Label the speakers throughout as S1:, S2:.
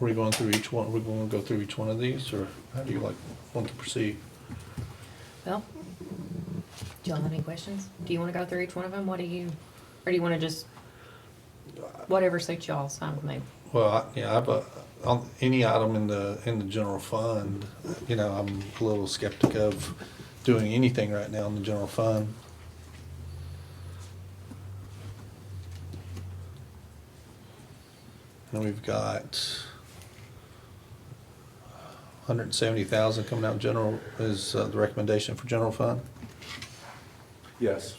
S1: Are we going through each one, are we going to go through each one of these, or how do you like, want to proceed?
S2: Well, do y'all have any questions? Do you wanna go through each one of them? What do you, or do you wanna just, whatever suits y'all, it's fine with me.
S1: Well, I- yeah, I, but, on any item in the, in the general fund, you know, I'm a little skeptic of doing anything right now in the general fund. And we've got hundred and seventy thousand coming out general, is uh, the recommendation for general fund?
S3: Yes.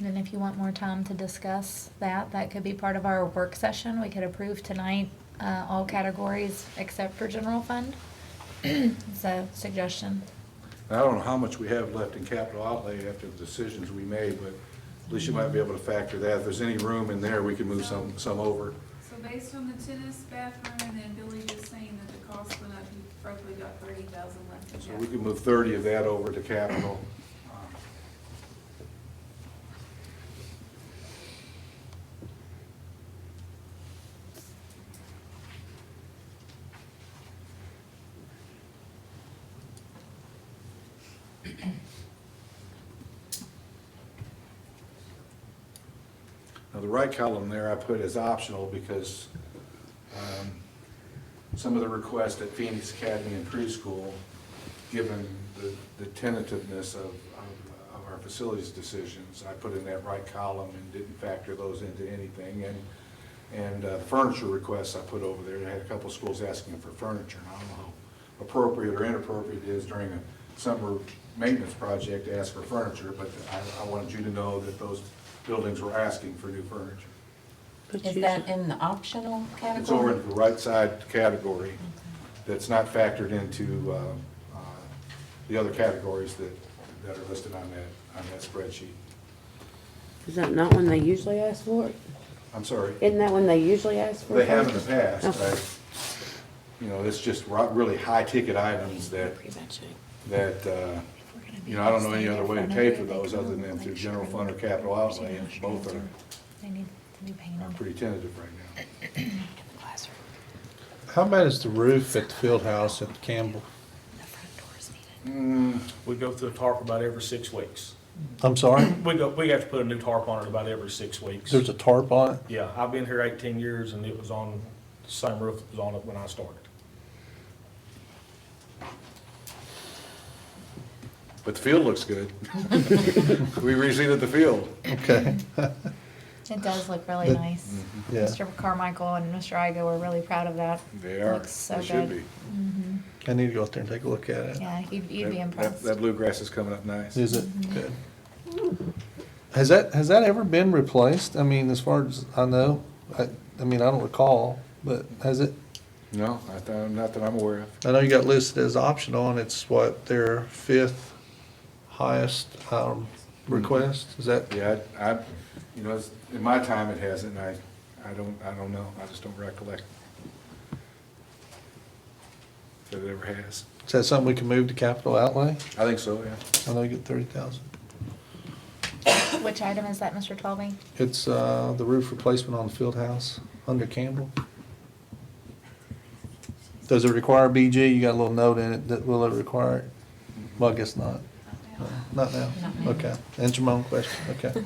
S4: And if you want more time to discuss that, that could be part of our work session. We could approve tonight, uh, all categories except for general fund. It's a suggestion.
S3: And I don't know how much we have left in capital outlay after the decisions we made, but at least you might be able to factor that. If there's any room in there, we can move some, some over.
S5: So based on the tennis bathroom and then Billy just saying that the cost went up, you probably got thirty thousand left in
S3: So we
S5: capital.
S3: can move thirty of that over to capital. Um, Now, the right column there I put as optional because um, some of the requests at Phoenix Academy and preschool, given the- the tentativeness of, of- of our facilities decisions, I put in that right column and didn't factor those into anything. And, and uh, furniture requests I put over there, I had a couple schools asking for furniture, and I don't know how appropriate or inappropriate it is during a summer maintenance project to ask for furniture, but I, I wanted you to know that those buildings were asking for new furniture.
S6: Is that in the optional category?
S3: It's over in the right side category that's not factored into uh, uh, the other categories that, that are listed on that, on that spreadsheet.
S7: Is that not when they usually ask for it?
S3: I'm sorry,
S7: Isn't that when they usually ask for it?
S3: they have in the past,
S7: Okay.
S3: I, you know, it's just ro- really high-ticket items that, that, uh, you know, I don't know any other way to pay for those other than through general fund or capital outlay, and both are,
S4: They need to be
S3: are
S4: painted.
S3: pretty tentative right now.
S1: How bad is the roof at the field house at Campbell?
S8: We go through a tarp about every six weeks.
S1: I'm sorry,
S8: We go, we have to put a new tarp on it about every six weeks.
S1: there's a tarp on it?
S8: Yeah, I've been here eighteen years and it was on, the same roof that was on it when I started.
S3: But the field looks good. We reseeded the field.
S1: Okay,
S4: It does look really
S1: The-
S4: nice.
S1: yeah.
S4: Mr. Carmichael and Mr. Igo are really proud of that.
S3: They are,
S4: Looks so
S3: they should
S4: good.
S3: be.
S1: I need to go out there and take a look at it.
S4: Yeah, you'd, you'd be
S3: That- that-
S4: impressed.
S3: That bluegrass is coming up nice.
S1: Is it? Good. Has that, has that ever been replaced? I mean, as far as I know, I, I mean, I don't recall, but has it?
S3: No, I thought, not that I'm aware of.
S1: I know you got listed as optional and it's what, their fifth highest, um, request? Is that?
S3: Yeah, I, I- you know, it's- in my time it hasn't, and I, I don't, I don't know, I just don't recollect. That it ever has.
S1: Is that something we can move to capital outlay?
S3: I think so, yeah.
S1: I know you get thirty thousand.
S4: Which item is that, Mr. Twelby?
S1: It's, uh, the roof replacement on the field house under Campbell. Does it require BG? You got a little note in it that will it require it?
S3: Mm-hmm.
S1: Well, I guess not. Not now?
S6: Not now.
S1: Okay, answer my own question, okay.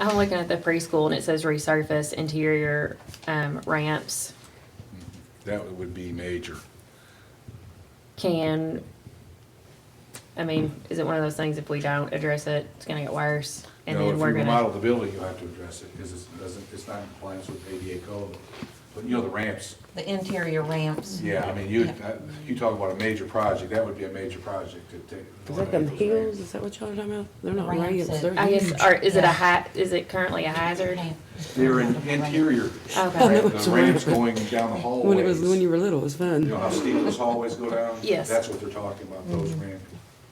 S2: I'm looking at the preschool and it says resurface interior, um, ramps.
S3: That would be major.
S2: Can, I mean, is it one of those things if we don't address it, it's gonna get worse? And
S3: No,
S2: then we're
S3: If you remodel
S2: gonna,
S3: the building, you have to address it, because it doesn't, it's not in compliance with ADA code. But you know, the ramps,
S6: The interior ramps?
S3: yeah, I mean, you,
S6: Yeah.
S3: I- you talk about a major project, that would be a major project to take.
S7: Is that them heels? Is that what y'all are talking about? They're not
S6: Ramps
S7: ramps,
S6: it.
S7: they're
S2: I guess,
S7: huge.
S2: or is it a
S6: Yeah.
S2: ha, is it currently a hazard?
S6: Ramp.
S3: They're in interior.
S2: Okay.
S3: The ramps going down the hallways.
S7: When it was, when you were little, it was
S3: You know
S7: fun.
S3: how steep those hallways go down?
S2: Yes.
S3: That's what they're talking about, those
S7: Mm-hmm.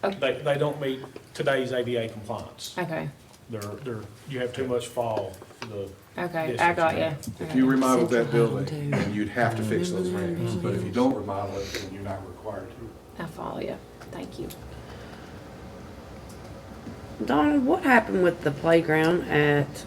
S3: ramps.
S8: They, they don't meet today's ADA compliance.
S2: Okay,
S8: They're, they're, you have too much fall for the.
S2: okay, I
S8: distance
S2: got
S8: now.
S2: you.
S3: If you remodeled that building,
S7: Central Hall, too.
S3: then you'd have to fix those ramps, but if you don't remodel it, then you're not required to.
S2: I follow you, thank you.
S7: Donna, what happened with the playground at